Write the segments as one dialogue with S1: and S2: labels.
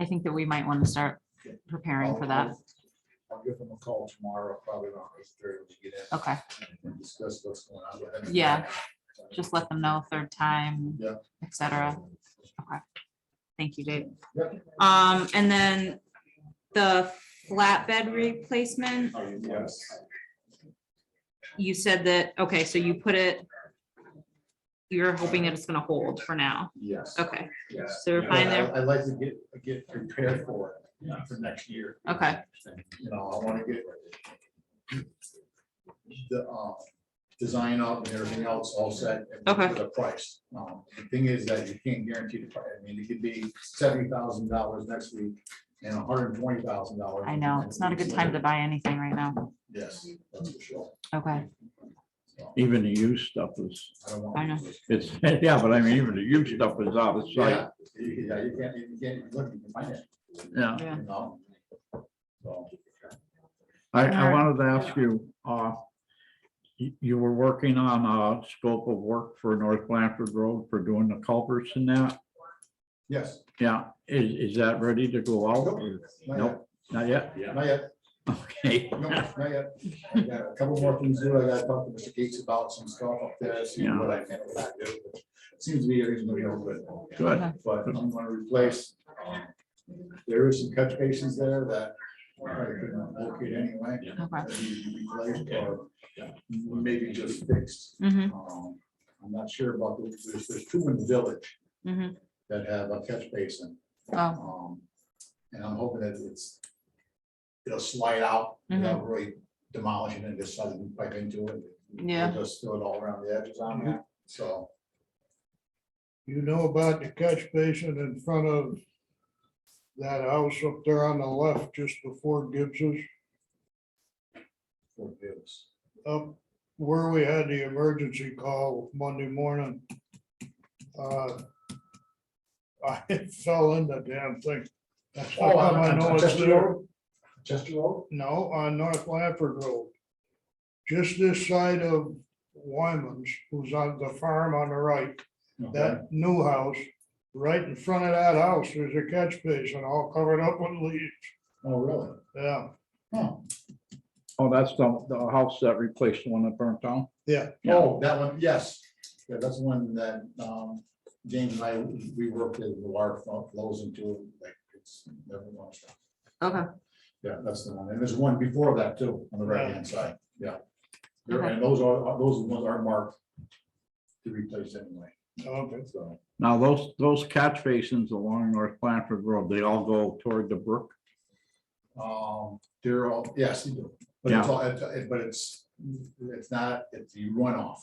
S1: I think that we might want to start preparing for that.
S2: I'll give them a call tomorrow, probably around eight thirty to get in
S1: Okay,
S2: and discuss what's going on. with them.
S1: Yeah, just uh, let them know third time,
S2: Yeah.
S1: et cetera. Thank you, Dave.
S2: Yep.
S1: Um, and then the flatbed replacement,
S2: Yes,
S1: you said that, okay, so you put it, you're hoping that it's gonna hold for now.
S2: yes.
S1: Okay,
S2: yes.
S1: so we're fine there.
S2: I- I'd like to get, get prepared for it uh, for next year.
S1: Okay.
S2: You know, I wanna get the, uh, design up and everything else all set.
S1: Okay.
S2: For the price. Um, The thing is that you can't guarantee the price. I mean, it could be seventy thousand dollars next week and hundred and twenty thousand dollars.
S1: I know, it's not a good time to buy anything right now.
S2: Yes, that's for sure.
S1: Okay,
S2: So,
S3: Even the used stuff is,
S2: I don't want.
S1: I know.
S3: it's, yeah, but I mean, even the used stuff is out of sight,
S2: Yeah, you yeah, you can't, you can't, even look, you can find it,
S3: yeah.
S1: yeah.
S2: you know? So,
S3: I, I
S1: Alright.
S3: wanted to ask you, uh, you, you were working on a scope of work for North Blanford Road for doing the culverts and that?
S2: Yes.
S3: Yeah, is, is that ready to go out?
S2: Nope,
S3: or-
S2: not
S3: Nope, not yet?
S2: yet, Not yet.
S3: Okay.
S2: No, not yet. I got A couple more things to do. I gotta talk to Mr. Gates about some stuff up there, see what I can and not do. Seems to be reasonably open,
S3: Good,
S2: but I'm gonna replace. um, There is some catch basins there that I couldn't locate anyway.
S1: Okay.
S2: that need to be replaced or Maybe just fixed.
S1: Mm-hmm,
S2: Um, I'm not sure about, the- there's, there's two in the village
S1: Mhm.
S2: that have a catch basin.
S1: oh,
S2: Um, And I'm hoping that it's, it'll slide out, without really demolishing and just suddenly pipe into it.
S1: Yeah.
S2: We'll Just throw it all around the edges on that, so.
S4: You know about the catch basin in front of that house up there on the left, just before Gibbs's,
S2: we'll do this.
S4: up where we had the emergency call Monday morning. Uh, I fell in the damn thing. That's
S2: Oh,
S4: how
S2: on-
S4: come I
S2: on-
S4: know
S2: on
S4: it's
S2: Chester
S4: there.
S2: Road? Chester Road?
S4: No, on North Lampard Road. Just this side of Wyman's, who's on the farm on the right.
S2: Okay.
S4: that new house, right in front of that house, there's a catch basin all covered up with leaves.
S2: Oh, really?
S4: Yeah,
S2: Huh.
S3: oh, that's the, the house that replaced the one that burnt down?
S4: yeah,
S3: Yeah.
S2: Oh, that one, yes. Yeah, that's one that, um, James and I, we worked with, the water flo- flows into, like, it's never washed out.
S1: okay,
S2: Yeah, that's the one. And there's one before that too, on the right hand side, yeah. There- And those are, those ones are marked to replace anyway,
S4: okay.
S2: so.
S3: Now, those, those catch basins along North Blanford Road, they all go toward the brook?
S2: Um, they're all, yes, you do. But it's all, it- but it's, it's not, it's the runoff.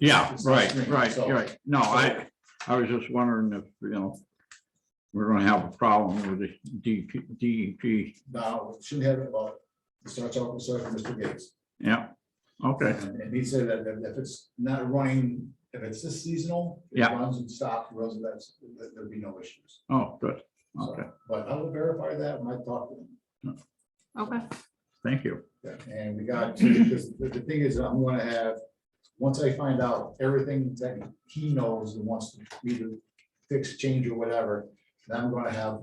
S3: Yeah,
S2: It's
S3: right,
S2: extreme,
S3: right,
S2: so-
S3: right. No, I, I was just wondering if, you know, we're gonna have a problem with the DP, DEP.
S2: Now, we shouldn't have it, but it starts off with starts with Mr. Gates.
S3: Yeah, okay,
S2: Um, And and he said that that if it's not running, if it's just seasonal. it
S3: Yeah.
S2: Runs and stops, runs and that's, there- there'd be no issues.
S3: oh, good,
S2: So,
S3: okay,
S2: But I will verify that when I talk to him.
S1: okay,
S3: thank you.
S2: Yeah, And we got, because the, the thing is, I'm gonna have, once I find out everything that he knows and wants to either fix, change or whatever, then I'm gonna have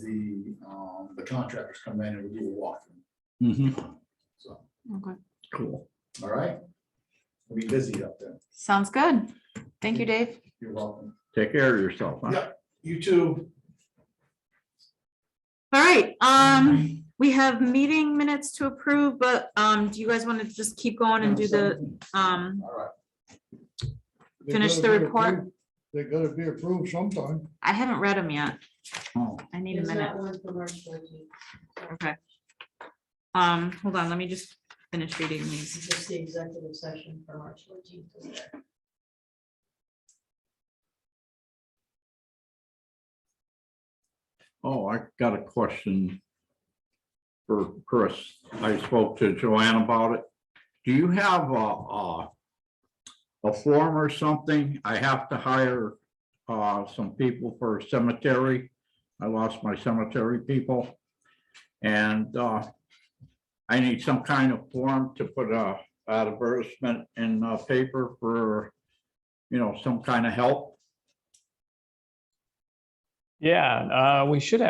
S2: the, um, the contractors come in and we do a
S3: Mhm,
S2: walkthrough. So,
S1: okay.
S3: Cool.
S2: all right? We'll be busy up there.
S1: Sounds good. Thank you, Dave.
S2: You're welcome.
S3: Take care of yourself. huh?
S2: Yeah. You too.
S1: All right, um, we have meeting minutes to approve, but, um, do you guys want to just keep going and do the, um,
S2: All right.
S4: They
S1: Finish
S4: gotta
S1: the
S4: be
S1: report.
S4: approved- They gotta be approved sometime.
S1: I haven't read them yet.
S3: Oh,
S1: I need a
S5: There's
S1: minute.
S5: not one for March 14th.
S1: Okay. Um, hold on, let me just finish reading these.
S5: It's just the executive session for March 14th. is there.
S3: Oh, I got a question for Chris. I spoke to Joanne about it. Do you have a, a a form or something? I have to hire uh, some people for cemetery. I lost my cemetery people. And uh, I need some kind of form to put a advertisement in a paper for, you know, some kind of help.
S6: Yeah, uh, we should have.